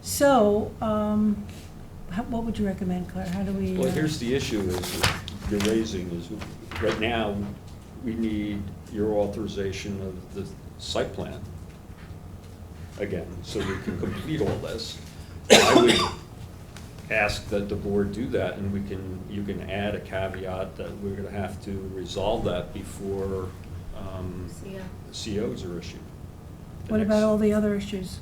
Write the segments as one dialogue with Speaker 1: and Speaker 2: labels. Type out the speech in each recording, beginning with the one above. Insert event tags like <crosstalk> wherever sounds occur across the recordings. Speaker 1: So, um, how- what would you recommend, Claire? How do we?
Speaker 2: Well,
Speaker 1: uh,
Speaker 2: here's the issue is, you're raising is, right now, we need your authorization of the site plan again, so we can complete all this. I would ask that the board do that, and we can, you can add a caveat that we're gonna have to resolve that before, um,
Speaker 3: Yeah.
Speaker 2: COs are issued. The
Speaker 1: What about
Speaker 2: next-
Speaker 1: all the other issues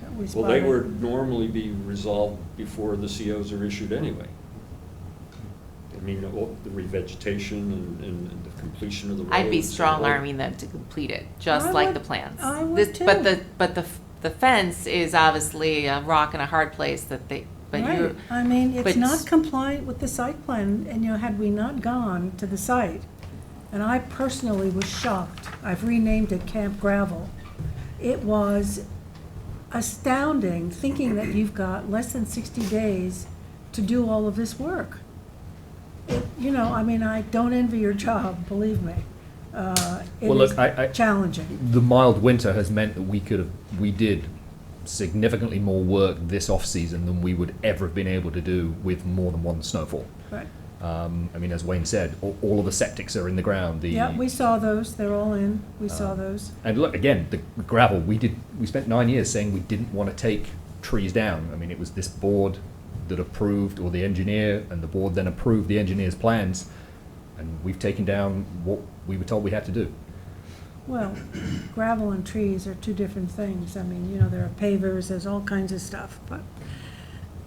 Speaker 1: that we
Speaker 2: Well,
Speaker 1: spotted?
Speaker 2: they would normally be resolved before the COs are issued anyway. I mean, all- the revegetation and- and and the completion of the roads.
Speaker 4: I'd be
Speaker 2: and
Speaker 4: strong
Speaker 2: all-
Speaker 4: arming them to complete it,
Speaker 1: I
Speaker 4: just like
Speaker 1: would-
Speaker 4: the plans.
Speaker 1: I would
Speaker 4: This- But
Speaker 1: too.
Speaker 4: the, but the, f- the fence is obviously a rock and a hard place that they, but
Speaker 1: Right,
Speaker 4: you,
Speaker 1: I mean, it's
Speaker 4: but-
Speaker 1: not compliant with the site plan, and, you know, had we not gone to the site, and I personally was shocked, I've renamed it Camp Gravel. It was astounding, thinking that you've got less than sixty days to do all of this work. It- You know, I mean, I don't envy your job, believe me. Uh, It
Speaker 5: Well, look,
Speaker 1: is
Speaker 5: I- I-
Speaker 1: challenging.
Speaker 5: The mild winter has meant that we could have, we did significantly more work this off season than we would ever have been able to do with more than one snowfall.
Speaker 1: But,
Speaker 5: Um, I mean, as Wayne said, all, all of the septics are in the ground. The, Uh,
Speaker 1: yeah, we saw those, they're all in, we saw those.
Speaker 5: and look again, the gravel. We did. We spent nine years saying we didn't want to take trees down. I mean, it was this board that approved, or the engineer, and the board then approved the engineer's plans, and we've taken down what we were told we had to do.
Speaker 1: Well, <clears throat> gravel and trees are two different things. I mean, you know, there are pavers, there's all kinds of stuff, but.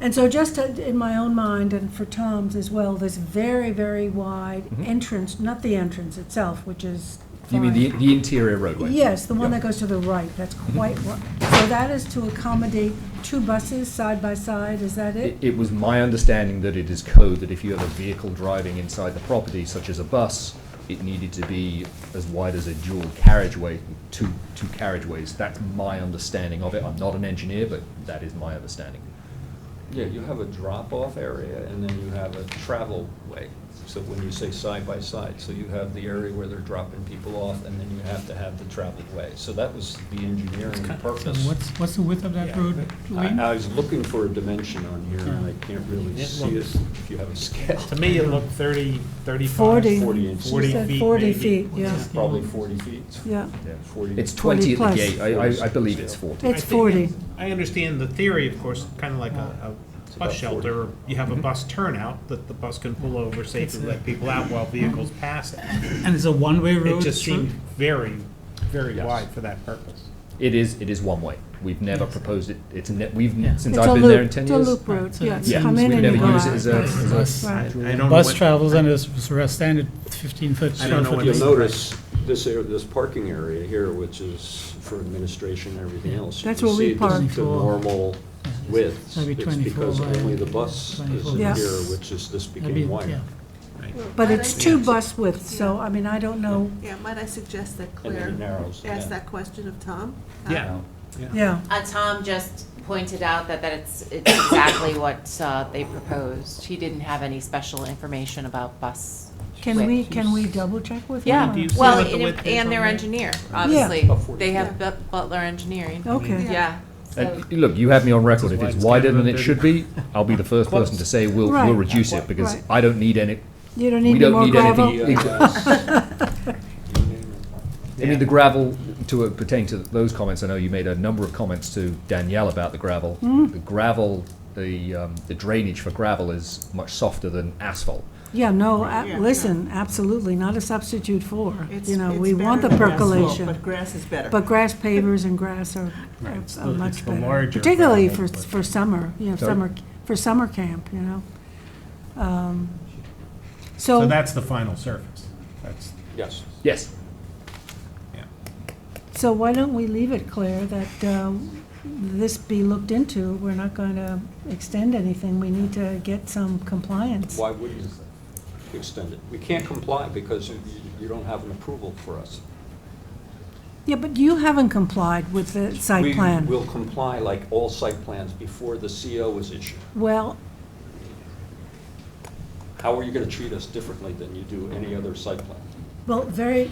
Speaker 1: And so just to- in my own mind and for Tom's as well, this very, very wide
Speaker 5: Mhm.
Speaker 1: entrance, not the entrance itself, which is.
Speaker 5: You mean the,
Speaker 1: fine.
Speaker 5: the interior roadway?
Speaker 1: Yes, the one
Speaker 5: Yeah. Mm-hmm.
Speaker 1: that goes to the right, that's quite, wi- so that is to accommodate two buses side by side, is that it?
Speaker 5: It, it was my understanding that it is code that if you have a vehicle driving inside the property, such as a bus, it needed to be as wide as a dual carriageway, two, two carriageways. That's my understanding of it. I'm not an engineer, but that is my understanding.
Speaker 2: Yeah, you have a drop-off area, and then you have a travel way. So when you say side by side, so you have the area where they're dropping people off, and then you have to have the traveled way. So that was the engineering
Speaker 6: So
Speaker 2: purpose.
Speaker 6: what's, what's the width of that
Speaker 2: Yeah.
Speaker 6: road, Lee?
Speaker 2: I I was looking for a dimension on here, and I can't really
Speaker 6: It
Speaker 2: see it
Speaker 6: looks-
Speaker 2: if you have a scale.
Speaker 6: To me, it looked 30, 35.
Speaker 1: Forty.
Speaker 2: 40 inches.
Speaker 1: She said Forty feet, yeah,
Speaker 6: Yes.
Speaker 2: Probably 40 feet.
Speaker 1: yeah.
Speaker 2: Forty.
Speaker 5: It's
Speaker 1: 20
Speaker 5: twenty at the
Speaker 1: plus.
Speaker 5: gate. I, I, I believe it's forty.
Speaker 1: It's
Speaker 6: I think-
Speaker 1: forty.
Speaker 6: I understand the theory, of course, kind of like a, a
Speaker 2: about
Speaker 6: bus shelter. You
Speaker 1: Mm-hmm.
Speaker 6: have a bus turnout that the bus can pull over safely, let people out while vehicles pass it.
Speaker 7: And it's a one-way road?
Speaker 6: It just
Speaker 7: through?
Speaker 6: seemed very, very
Speaker 5: Yes.
Speaker 6: wide for that purpose.
Speaker 5: It is, it is one way. We've never proposed it. It's, ne- we've,
Speaker 7: Yeah.
Speaker 5: since
Speaker 1: It's a
Speaker 5: I've been there
Speaker 1: loop-
Speaker 5: in ten
Speaker 1: It's a
Speaker 5: years.
Speaker 1: loop road,
Speaker 7: Right, so
Speaker 1: yeah,
Speaker 7: it's
Speaker 1: you
Speaker 5: Yeah,
Speaker 1: come in
Speaker 5: we've
Speaker 1: and you
Speaker 5: never
Speaker 1: go
Speaker 5: used it
Speaker 1: out.
Speaker 5: as a, as a,
Speaker 6: I
Speaker 1: Right.
Speaker 6: don't know
Speaker 7: Bus
Speaker 6: what-
Speaker 7: travels under s- s- standard fifteen-foot,
Speaker 6: I don't know
Speaker 7: twelve-foot
Speaker 6: what
Speaker 2: You'll
Speaker 6: is-
Speaker 2: notice this area, this parking area here, which is for administration and everything else. you
Speaker 1: That's
Speaker 2: can
Speaker 1: where we
Speaker 2: see
Speaker 1: park.
Speaker 2: The normal width.
Speaker 7: Maybe
Speaker 2: It's
Speaker 7: 24
Speaker 2: because
Speaker 7: by
Speaker 2: only the bus is
Speaker 7: 24.
Speaker 2: in
Speaker 1: Yeah.
Speaker 2: here, which is, this
Speaker 7: That'd be-
Speaker 2: became wider.
Speaker 7: yeah.
Speaker 1: But it's two bus widths, so, I mean, I don't know,
Speaker 3: Yeah, might I suggest that
Speaker 2: And then it
Speaker 3: Claire
Speaker 2: narrows.
Speaker 3: ask
Speaker 2: yeah.
Speaker 3: that question of Tom?
Speaker 6: Yeah.
Speaker 1: yeah.
Speaker 4: uh, Tom just pointed out that, that it's, it's exactly <coughs> what, uh, they proposed. He didn't have any special information about bus.
Speaker 1: Can
Speaker 4: width.
Speaker 1: we, can we double check with
Speaker 4: Yeah,
Speaker 1: them?
Speaker 6: Do you see
Speaker 4: well,
Speaker 6: what the
Speaker 4: and,
Speaker 6: width is
Speaker 4: and
Speaker 6: on
Speaker 4: their
Speaker 6: there?
Speaker 4: engineer,
Speaker 2: About
Speaker 4: obviously.
Speaker 2: 40.
Speaker 4: They have Bu- Butler Engineering,
Speaker 1: Okay,
Speaker 4: yeah. So,
Speaker 5: And, Look, you have me on record. If
Speaker 6: why
Speaker 5: it's
Speaker 6: it's
Speaker 5: wider than it
Speaker 6: Canada
Speaker 5: should <laughs> be, I'll be the first person to say we'll,
Speaker 1: Right.
Speaker 5: we'll reduce it because
Speaker 1: Right.
Speaker 5: I don't need any,
Speaker 1: you don't need
Speaker 5: we
Speaker 1: any
Speaker 5: don't
Speaker 1: more
Speaker 5: need
Speaker 1: gravel?
Speaker 5: any. I mean, the gravel, to pertain to those comments, I know you made a number of comments to Danielle about the gravel.
Speaker 1: Hmm.
Speaker 5: The gravel, the, um, the drainage for gravel is much softer than asphalt.
Speaker 1: Yeah, no, a-
Speaker 3: Yeah.
Speaker 1: listen, absolutely, not a substitute for,
Speaker 3: It's-
Speaker 1: you know,
Speaker 3: it's
Speaker 1: we want the
Speaker 3: better than asphalt,
Speaker 1: percolation.
Speaker 3: But grass is better.
Speaker 1: But grass pavers and grass are are-
Speaker 6: Right, it's
Speaker 1: are
Speaker 6: the- it's
Speaker 1: much
Speaker 6: the
Speaker 1: better,
Speaker 6: larger
Speaker 1: particularly for,
Speaker 6: gravel, but-
Speaker 1: for summer, you know,
Speaker 5: Sorry?
Speaker 1: summer, for summer camp, you know? Um,
Speaker 6: So
Speaker 1: So,
Speaker 6: that's the final surface. That's,
Speaker 2: Yes.
Speaker 5: Yes,
Speaker 6: yeah.
Speaker 1: so why don't we leave it, Claire, that um, this be looked into? We're not going to extend anything, we need to get some compliance.
Speaker 2: Why would you extend it? We can't comply because you, you don't have an approval for us.
Speaker 1: Yeah, but you haven't complied with the site
Speaker 2: We
Speaker 1: plan.
Speaker 2: will comply like all site plans before the CO is issued.
Speaker 1: Well,
Speaker 2: How are you gonna treat us differently than you do any other site plan?
Speaker 1: well, very,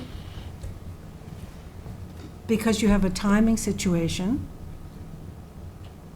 Speaker 1: because you have a timing situation,